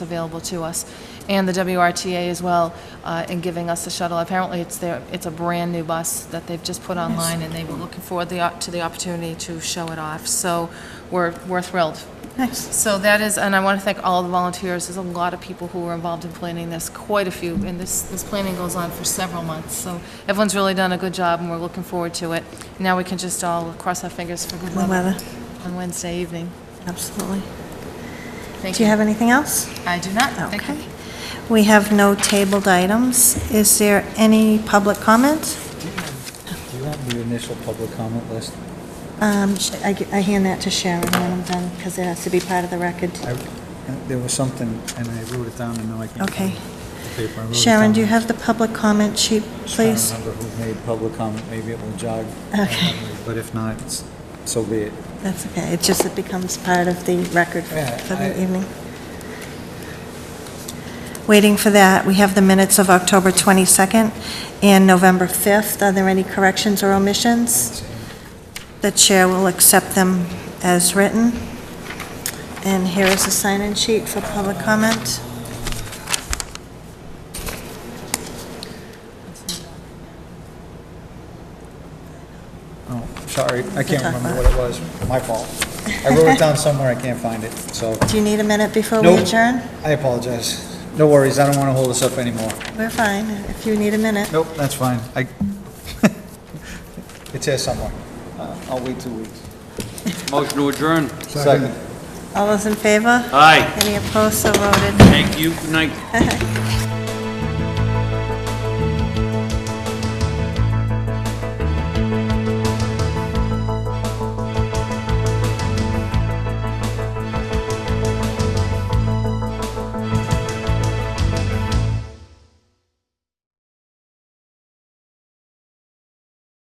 available to us, and the WRTA as well, uh, in giving us the shuttle. Apparently, it's their, it's a brand-new bus that they've just put online, and they were looking forward the op- to the opportunity to show it off. So we're, we're thrilled. Nice. So that is, and I want to thank all the volunteers. There's a lot of people who were involved in planning this, quite a few, and this, this planning goes on for several months. So everyone's really done a good job, and we're looking forward to it. Now we can just all cross our fingers for good The weather, weather on Wednesday evening. absolutely. Thank Do you have anything else? I do not. Thank you. Okay. We have no tabled items. Is there any public comment? Do you have the initial public comment list? Um, sh- I g- I hand that to Sharon when I'm done, because it has to be part of the record. I- uh, There was something, and I wrote it down, and now I can't. Okay. find the paper. I wrote it Sharon, do you down. have the public comment sheet, please? I don't remember who made public comment, maybe it will jog. my Okay. memory, But if not, it's- so be it. That's okay, it just, it becomes part of the record for Yeah, for I- the evening. Waiting for that, we have the minutes of October 22nd and November 5th. Are there any corrections or omissions? The chair will accept them as written. And here is a sign-in sheet for public comment. Oh, sorry, I can't talk remember about what it was, my fault. I wrote it down somewhere, I can't find it, so. Do you need a minute before we Nope. adjourn? I apologize. No worries, I don't want to hold this up anymore. We're fine, if you need a minute. Nope, that's fine. I, it's here somewhere. Uh, I'll wait two weeks. Motion to adjourn. Second. All those in favor? Aye. Any opposed, so voted. Thank you. Good night.